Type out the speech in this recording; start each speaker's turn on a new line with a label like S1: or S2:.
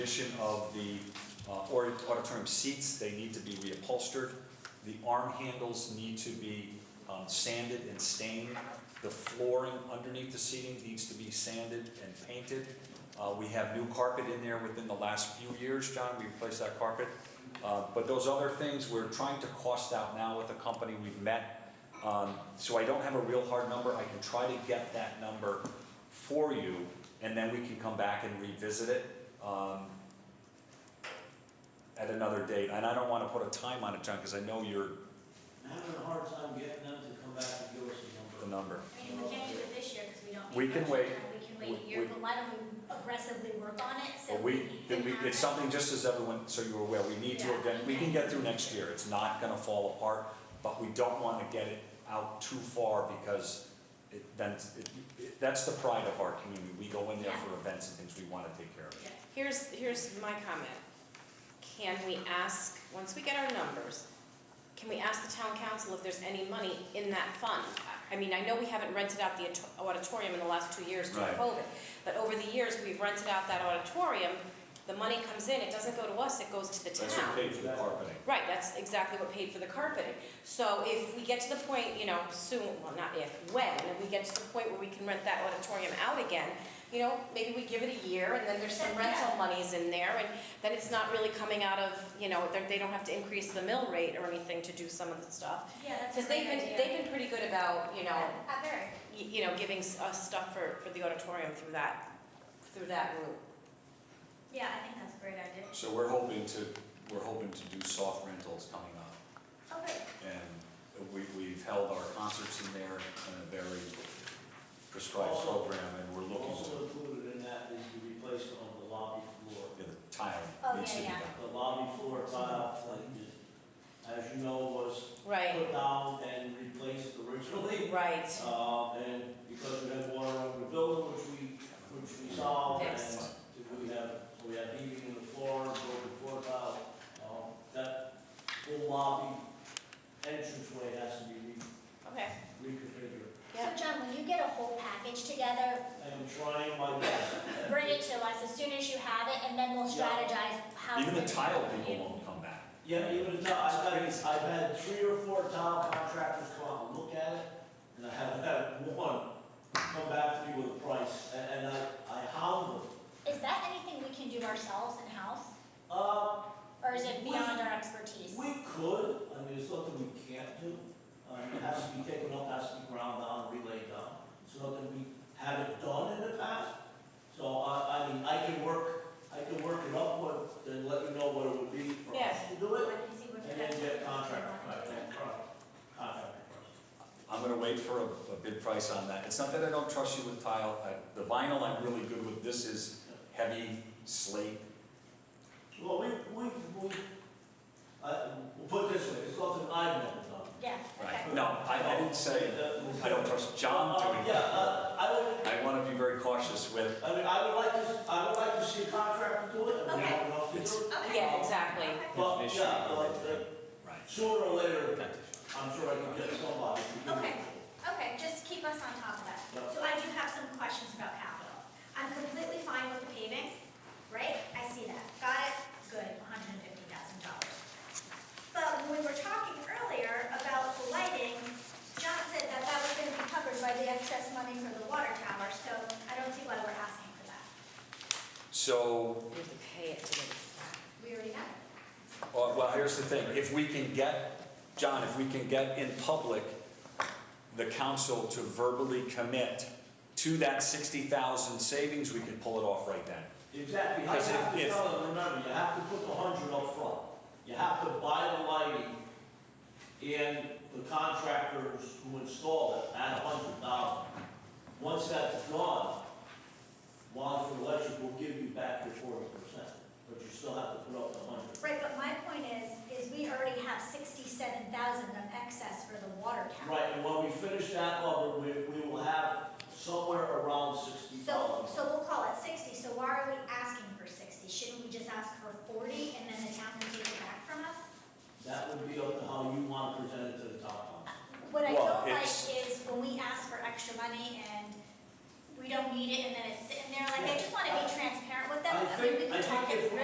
S1: condition of the uh, or- auditorium seats, they need to be reupholstered. The arm handles need to be um, sanded and stained. The flooring underneath the seating needs to be sanded and painted. Uh, We have new carpet in there within the last few years, John, we replaced that carpet. Uh, But those other things, we're trying to cost out now with the company we've met. Um, So I don't have a real hard number, I can try to get that number for you, and then we can come back and revisit it. Um, at another date, and I don't want to put a time on it, John, because I know you're
S2: I'm having a hard time getting them to come back and give us a
S1: the number.
S2: number.
S3: I mean, we can't do it this year because we don't. have
S1: We can
S3: budget
S1: wait.
S3: time. We can wait a
S1: We-
S3: year,
S1: we-
S3: but why don't we aggressively work on it so
S1: But
S3: we
S1: we,
S3: can
S1: then we,
S3: have
S1: it's
S3: it?
S1: something just as everyone, so you're aware, we need to,
S3: Yeah.
S1: again, we can get through next year, it's not gonna fall apart, but we don't want to get it out too far because it, then, it- it- that's the pride of our community, we go in there for events and things we want to take care of.
S3: Yeah.
S4: Here's, here's my comment. Can we ask, once we get our numbers, can we ask the town council if there's any money in that fund? I mean, I know we haven't rented out the auto- auditorium in the last two years due to
S1: Right.
S4: COVID, but over the years, we've rented out that auditorium. The money comes in, it doesn't go to us, it goes to the town.
S1: That's what paid for the carpeting.
S4: Right, that's exactly what paid for the carpeting. So if we get to the point, you know, soon, well, not if, when, if we get to the point where we can rent that auditorium out again, you know, maybe we give it a year and then there's some rental monies in there and then it's not really coming out of, you know, they're- they don't have to increase the mill rate or anything to do some of the stuff.
S3: Yeah, that's a
S4: Because they've
S3: great
S4: been,
S3: idea.
S4: they've been pretty good about, you know,
S3: Yeah, uh, very.
S4: y- you know, giving s- us stuff for, for the auditorium through that, through that route.
S3: Yeah, I think that's a great idea.
S1: So we're hoping to, we're hoping to do soft rentals coming up.
S3: Oh, great.
S1: And we, we've held our concerts in there in a very prescribed
S2: Also-
S1: program, and we're looking
S2: Also
S1: to,
S2: included in that is the replacement of the lobby floor.
S1: yeah, the tile
S3: Oh,
S1: needs to be
S3: yeah, yeah.
S1: done.
S2: The lobby floor tile, like, is- as you know, was
S4: Right,
S2: put down and replaced originally.
S4: right.
S2: Uh, and because we had water over the building, which we, which we solved, and
S4: Fixed.
S2: we have, we have heating in the floor, and broken floor tile. Uh, That whole lobby entranceway has to be re-
S4: Okay,
S2: reconfigured.
S4: yeah.
S3: So John, will you get a whole package together,
S2: I am trying my best.
S3: bring it to us as soon as you have it, and then we'll
S2: Yeah.
S3: strategize how.
S1: Even the
S3: to-
S1: tile people won't come back.
S2: Yeah, even though I've had, I've had three or four tile contractors come out and look at it, and I haven't had one come back to me with a price, and, and I, I hound them.
S3: Is that anything we can do ourselves in-house,
S2: Uh,
S3: or is it
S2: We-
S3: beyond our expertise?
S2: we could, I mean, it's nothing we can't do, um, it has to be taken up, has to be ground down, relayed down. It's nothing we haven't done in the past, so I, I mean, I can work, I can work it up with, and let you know what it would be for us
S4: Yes.
S2: to do it.
S3: Like, you see what
S2: And then get
S3: the-
S2: contract, contract, contract.
S1: I'm gonna wait for a, a bid price on that. It's not that I don't trust you with tile, I, the vinyl I'm really good with, this is heavy slate.
S2: Well, we, we, we, uh, we'll put it this way, it's nothing I've never done. Uh,
S3: Yeah, okay.
S1: Right. No, I, I didn't say, I don't trust John doing
S2: Yeah,
S1: that.
S2: uh, I would,
S1: I wanna be very cautious with,
S2: I mean, I would like to, I would like to see a contractor do it, I mean, I don't know if
S1: It's-
S2: it's-
S4: Yeah, exactly.
S2: But, yeah, like, uh,
S1: right,
S2: sooner or later, I'm sure I can get somebody to do it.
S5: Okay, okay, just keep us on top of that.
S2: Yeah.
S5: So I do have some questions about capital. I'm completely fine with the paving, right? I see that, got it, good, hundred and fifty thousand dollars. But when we were talking earlier about the lighting, John said that that was gonna be covered by the excess money for the water tower, so I don't see why we're asking for that.
S1: so
S4: We have to pay it to get it back.
S5: We already have it.
S1: Well, well, here's the thing, if we can get, John, if we can get in public, the council to verbally commit to that sixty thousand savings, we can pull it off right then.
S2: Exactly, I
S1: Because if-
S2: have to
S1: if-
S2: tell them, remember, you have to put the hundred up front. You have to buy the lighting and the contractors who install it at a hundred thousand. Once that's done, Wadsworth Electric will give you back your forty percent, but you still have to put up the hundred.
S5: Right, but my point is, is we already have sixty-seven thousand of excess for the water tower.
S2: Right, and when we finish that level, we, we will have somewhere around sixty
S5: So,
S2: thousand.
S5: so we'll call it sixty, so why are we asking for sixty? Shouldn't we just ask for forty and then the town can take it back from us?
S2: That would be up to how you want to present it to the top council.
S5: What I
S1: Well,
S5: don't like
S1: it's-
S5: is when we ask for extra money and we don't need it and then it's sitting there, like, I just wanna be transparent with them.
S2: I
S5: mean,
S2: think-
S5: we can
S2: I think
S5: talk it
S2: if we-
S5: through.